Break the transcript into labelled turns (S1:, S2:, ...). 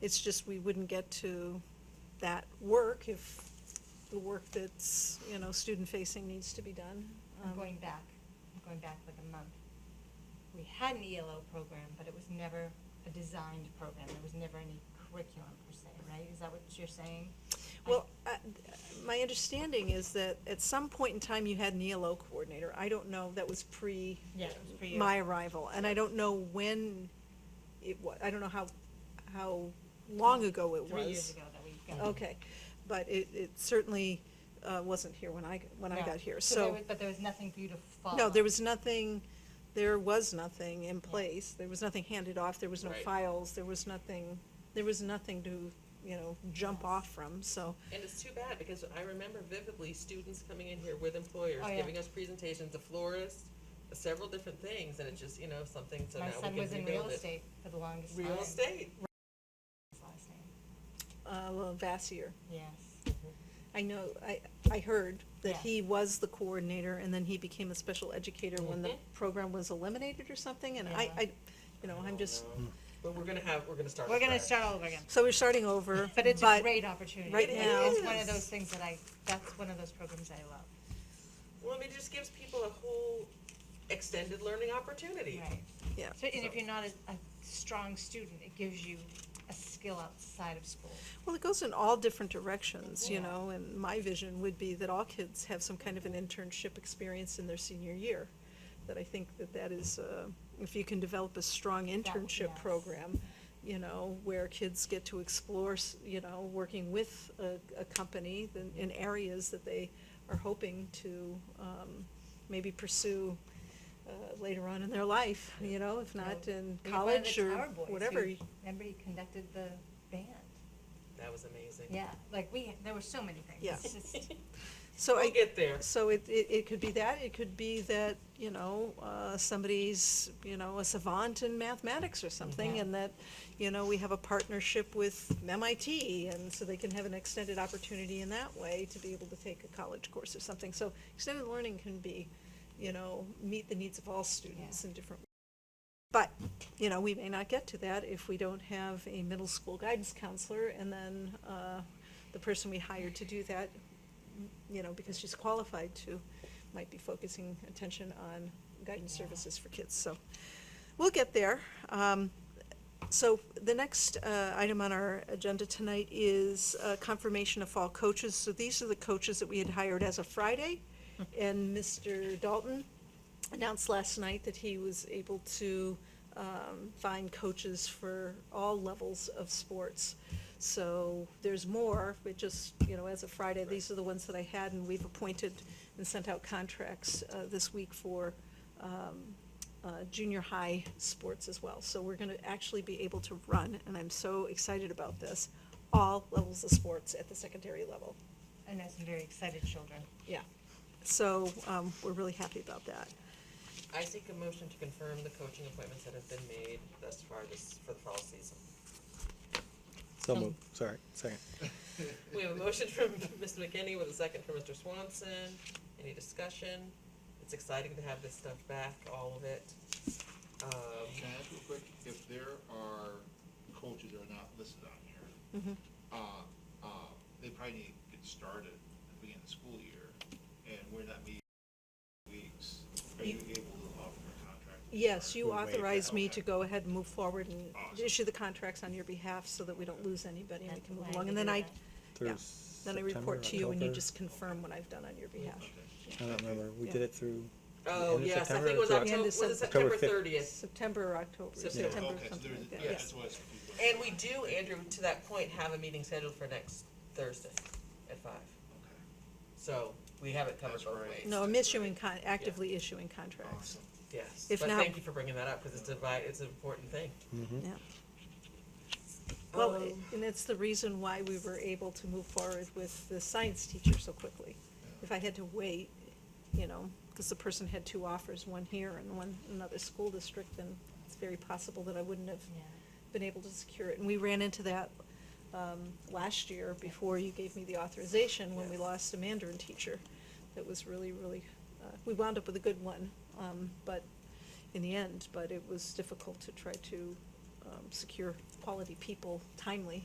S1: It's just we wouldn't get to that work if the work that's, you know, student-facing needs to be done.
S2: I'm
S1: Um,
S2: going back, I'm going back like a month. We had an ELO program, but it was never a designed program, there was never any curriculum per se, right? Is that what you're saying?
S1: Well, I- my understanding is that at some point in time, you had an ELO coordinator. I don't know, that was pre.
S2: Yeah, it was pre-
S1: My arrival, and I don't know when it wa, I don't know how, how long ago it was.
S2: Three years ago that we got.
S1: Okay, but it, it certainly uh, wasn't here when I, when I
S2: No.
S1: got here,
S2: there
S1: so.
S2: was- But there was nothing for you to follow.
S1: No, there was nothing, there was nothing in place, there was nothing handed off, there was no
S3: Right.
S1: files, there was nothing, there was nothing to, you know, jump off from, so.
S3: And it's too bad, because I remember vividly students coming in here with employers,
S2: Oh, yeah.
S3: giving us presentations, to florists, several different things, and it just, you know, something, so now
S2: My
S3: we
S2: son
S3: can rebuild
S2: was
S3: it.
S2: in real estate for the longest time.
S3: Real estate,
S2: His last name,
S1: Uh, well, Vassier,
S2: yes.
S1: I know, I, I heard that
S2: Yeah.
S1: he was the coordinator, and then he became a special educator when the program was eliminated or something, and I,
S2: Mm-hmm. Yeah.
S1: I, you know, I'm just,
S3: but we're gonna have, we're gonna start.
S2: We're gonna
S3: fresh.
S2: start all over again,
S1: so we're starting over.
S2: but it's a great opportunity.
S1: right
S2: It's-
S1: now-
S2: It's one of
S3: Yes.
S2: those things that I, that's one of those programs I love,
S3: Well, I mean, it just gives people a whole extended learning opportunity.
S2: right?
S1: Yeah.
S2: So, and if
S3: So-
S2: you're not a, a strong student, it gives you a skill outside of school.
S1: Well, it goes in all different directions, you
S2: Yeah.
S1: know, and my vision would be that all kids have some kind of an internship experience in their senior year. That I think that that is, uh, if you can develop a strong internship
S2: yes.
S1: program, you know, where kids get to explore, s- you know, working with a, a company then in areas that they are hoping to, um, maybe pursue, uh, later on in their life, you know, if not in
S2: We had one of the
S1: college or
S2: Tower Boys
S1: whatever.
S2: who- Remember he conducted the band?
S3: That was amazing.
S2: Yeah, like we, there were so many things.
S1: Yeah.
S2: It's just-
S1: So I,
S3: We'll get there.
S1: So it, it, it could be that, it could be that, you know, uh, somebody's, you know, a savant in mathematics or something,
S2: Yeah.
S1: and that, you know, we have a partnership with MIT, and so they can have an extended opportunity in that way to be able to take a college course or something. So extended learning can be, you know, meet the needs of all students in different. But, you know, we may not get to that if we don't have a middle school guidance counselor, and then, uh, the person we hired to do that you know, because she's qualified to, might be focusing attention on guidance
S2: Yeah.
S1: services for kids, so we'll get there. Um, so the next, uh, item on our agenda tonight is, uh, confirmation of fall coaches, so these are the coaches that we had hired as of Friday. And Mr. Dalton announced last night that he was able to, um, find coaches for all levels of sports. So there's more, but just, you know, as of Friday, these are the ones that I had, and we've appointed and sent out contracts uh, this week for um, uh, junior high sports as well. So we're going to actually be able to run, and I'm so excited about this, all levels of sports at the secondary level.
S2: I know some very excited children.
S1: Yeah. So um, we're really happy about that.
S3: I seek a motion to confirm the coaching appointments that have been made thus far this, for the fall season.
S4: So
S1: Hmm.
S4: moved, sorry, second.
S3: We have a motion from Mr. McKinney with a second from Mr. Swanson. Any discussion? It's exciting to have this stuff back, all of it. Um,
S5: Can I ask real quick, if there are coaches that are not listed on
S1: Mm-hmm.
S5: here, uh, uh, they probably need to get started at the beginning of the school year, and we're not meeting in weeks. Are you able to offer a contract?
S1: Yes, you
S4: We waived that.
S1: authorized me
S5: Okay.
S1: to go ahead and move forward and
S5: Awesome.
S1: issue the contracts on your behalf so that we don't lose anybody and we
S2: That's
S1: can move
S2: why I
S1: along.
S2: did
S1: And then
S2: that.
S1: I,
S4: Through
S1: yeah, then I
S4: September,
S1: report to you and you
S4: October.
S1: just confirm what I've done on your behalf.
S4: I don't remember, we
S1: Yeah.
S4: did it through. the
S3: Oh,
S4: end of
S3: yes, I
S4: September
S3: think it
S4: or
S3: was
S4: through
S3: October, was it
S4: October
S3: September
S4: 5th?
S3: thirtieth?
S1: September or October,
S3: September.
S1: September,
S5: Okay, so
S1: something
S5: there's-
S1: like that,
S5: yeah,
S1: yes.
S5: that's why I was confused.
S3: And we do, Andrew, to that point, have a meeting scheduled for next Thursday at five.
S5: Okay,
S3: So we have it covered
S5: That's
S3: both
S5: right.
S3: ways.
S1: No, I'm issuing con, actively issuing contracts,
S5: Awesome.
S3: Yes, but
S1: If not-
S3: thank you for bringing that up, because it's a, vi- it's an important thing.
S1: yeah. Well,
S3: Um,
S1: it- and it's the reason why we were able to move forward with the science teacher so quickly. If I had to wait, you know, because the person had two offers, one here and one in another school district, then it's very possible that I wouldn't have
S2: Yeah.
S1: been able to secure it. And we ran into that um, last year before you gave me the authorization when we
S3: Yes.
S1: lost a Mandarin teacher. That was really, really, uh, we wound up with a good one, um, but in the end, but it was difficult to try to uh, um, secure quality people timely